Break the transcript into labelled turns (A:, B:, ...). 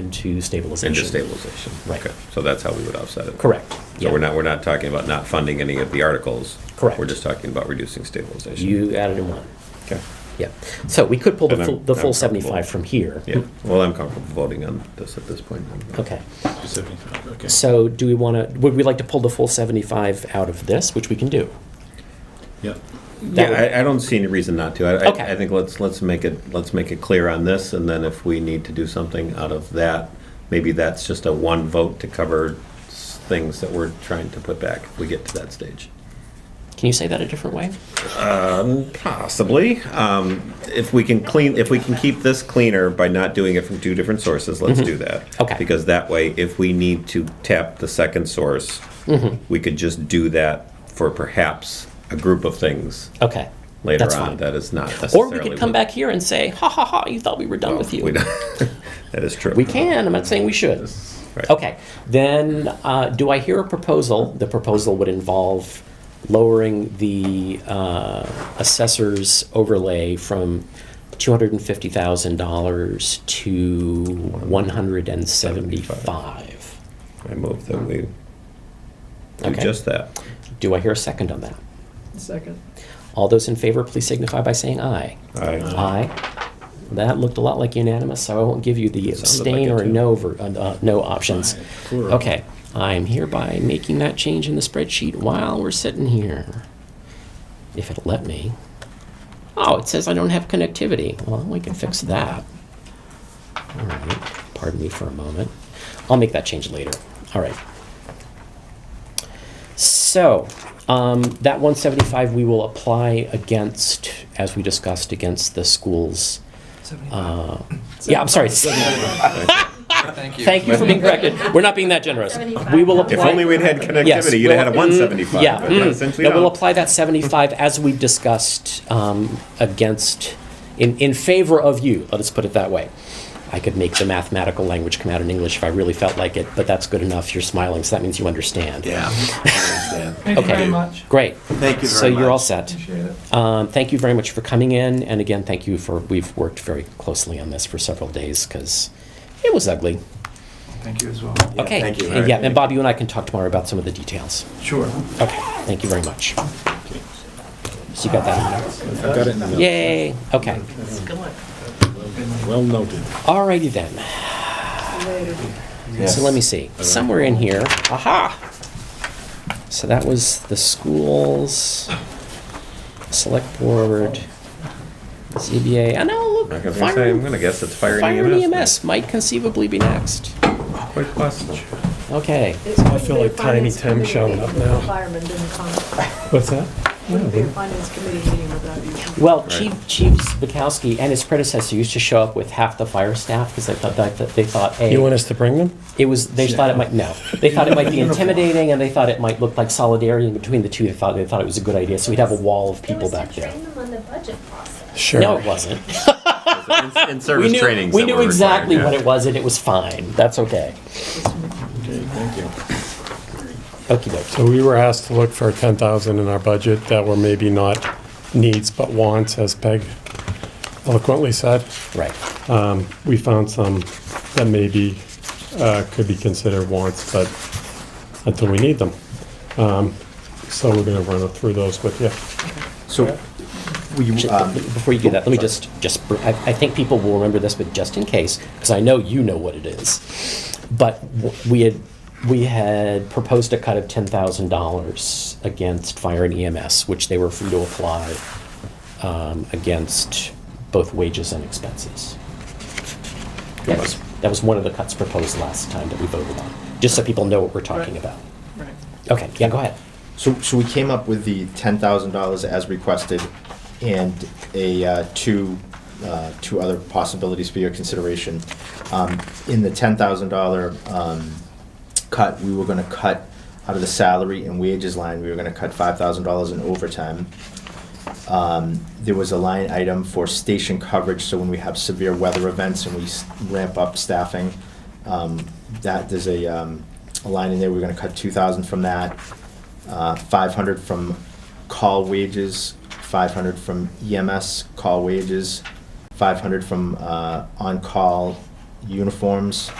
A: into stabilization.
B: Into stabilization.
A: Right.
B: Okay. So that's how we would offset it.
A: Correct.
B: So we're
A: Yeah.
B: not, we're not talking about not funding any of the articles.
A: Correct.
B: We're just talking about reducing stabilization.
A: You added in one.
B: Okay.
A: Yeah. So we could pull the
B: And I'm-
A: full, the
B: I'm
A: full
B: comfortable.
A: 75 from here.
B: Yeah, well, I'm comfortable voting on this at this point. then.
A: Okay.
C: Seventy-five, okay.
A: So do we want to, would we like to pull the full 75 out of this, which we can do?
C: Yep.
A: That
B: Yeah,
A: would-
B: I, I don't see any reason not to. I-
A: Okay.
B: I, I think let's, let's make it, let's make it clear on this, and then if we need to do something out of that, maybe that's just a one vote to cover s- things that we're trying to put back, if we get to that stage.
A: Can you say that a different way?
B: Possibly. Um, if we can clean, if we can keep this cleaner by not doing it from two different sources, let's do that.
A: Mm-hmm. Okay.
B: Because that way, if we need to tap the second source,
A: Mm-hmm.
B: we could just do that for perhaps a group of things
A: Okay.
B: later
A: That's
B: on.
A: fine.
B: That is
A: Or
B: not necessarily.
A: we could come
B: what-
A: back here and say, ha ha ha, you thought we were done with you.
B: We don't- that is true.
A: We can, I'm not saying we should.
B: Right.
A: Okay, then, uh, do I hear a proposal? The proposal would involve lowering the uh, assessor's overlay from $250,000 to 175.
B: I move that we do
A: Okay.
B: just that.
A: Do I hear a second on that?
D: Second.
A: All those in favor, please signify by saying aye.
B: I,
A: Uh, Aye. That looked a lot like unanimous, so I won't give you the
B: Sounded like
A: abstain
B: it,
A: or
B: too.
A: no, ver- uh, uh, no options.
C: Aye, plural.
A: Okay, I'm hereby making that change in the spreadsheet while we're sitting here. If it'll let me. Oh, it says I don't have connectivity. Well, we can fix that. All right, pardon me for a moment. I'll make that change later. All right. So, um, that one seventy-five we will apply against, as we discussed, against the schools. Uh, yeah, I'm sorry.
E: Thank you.
A: Thank you for being corrected. We're not being that generous. We will apply.
B: if only we'd had connectivity,
A: Yes,
B: you'd
A: we'll-
B: have had a
A: mm,
B: 175.
A: Yeah,
B: but
A: mm.
B: since we
A: No, we'll
B: don't-
A: apply that 75 as we discussed um, against, in, in favor of you, let us put it that way. I could make the mathematical language come out in English if I really felt like it, but that's good enough. You're smiling, so that means you understand.
F: Yeah.
D: Thank you
A: Okay.
D: very much.
A: Great.
F: Thank you
A: So
F: very
A: you're all
F: much.
A: set.
D: Appreciate it.
A: Um, Thank you very much for coming in, and again, thank you for, we've worked very closely on this for several days, because it was ugly.
D: Thank you as well.
A: Okay.
F: thank you.
A: And Yeah, and Bob, you and I can talk tomorrow about some of the details.
D: Sure.
A: Okay, thank you very much. So you got that?
C: I've got it in the notes.
A: Yay, okay.
C: Well noted.
A: Alrighty then, so let me see, somewhere in here, aha! So that was the schools, select board, ZBA, I know,
B: I
A: Ah, look,
B: was gonna say,
A: fire,
B: I'm gonna guess it's E fire
A: fire
B: and
A: and
B: EMS.
A: EMS might conceivably be next.
B: Quite possible.
A: Okay,
G: I feel like Tiny Tim showing up now.
H: Fireman didn't come.
G: What's that?
H: Wouldn't be a finance committee meeting without you.
A: well,
B: Right.
A: Chief, Chief Bukowski and his predecessor used to show up with half the fire staff, because they thought, that that they thought, hey.
G: You want us to bring them?
A: It was. They thought it might no. They thought it might be intimidating, and they thought it might look like solidarity between the two. They thought they thought it was a good idea. So we'd have a wall of people back there.
I: It was to train them on the budget process.
G: Sure.
A: No, it wasn't.
B: In
A: we
B: service
A: knew,
B: trainings
A: we
B: that
A: knew
B: were
A: exactly
B: required,
A: what
B: yeah.
A: it was, and it was fine. That's okay.
C: Okay, thank you.
A: Okie dokie.
G: So we were asked to look for 10,000 in our budget that were maybe not needs but wants, as Peg eloquently said. Um,
A: Right.
G: We found some that maybe uh, could be considered wants, but until we need them. Um, So we're going to run through those with you.
F: So, will you, um,
A: Before you do that, let me just just. br- I, I think people will remember this, but just in case, because I know you know what it is. But w- we had we had proposed a cut of ten thousand dollars against fire and EMS, which they were free to apply um, against both wages and expenses. That was, that was one of the cuts proposed last time that we voted on, just so people know what we're talking
D: Right.
A: about.
D: Right.
A: Okay, yeah, go ahead.
F: so, so we came up with the ten thousand dollars as requested and a, uh, two, uh, two other possibilities for your consideration. Um, in the ten thousand dollar, um, cut, we were gonna cut out of the salary and wages line, we were gonna cut five thousand dollars in overtime. Um, there was a line item for station coverage, so when we have severe weather events and we s- ramp up staffing, um, that, there's a, um, a line in there, we're gonna cut two thousand from that, uh, five hundred from call wages, five hundred from E EMS call wages, five hundred from, uh, on-call uniforms,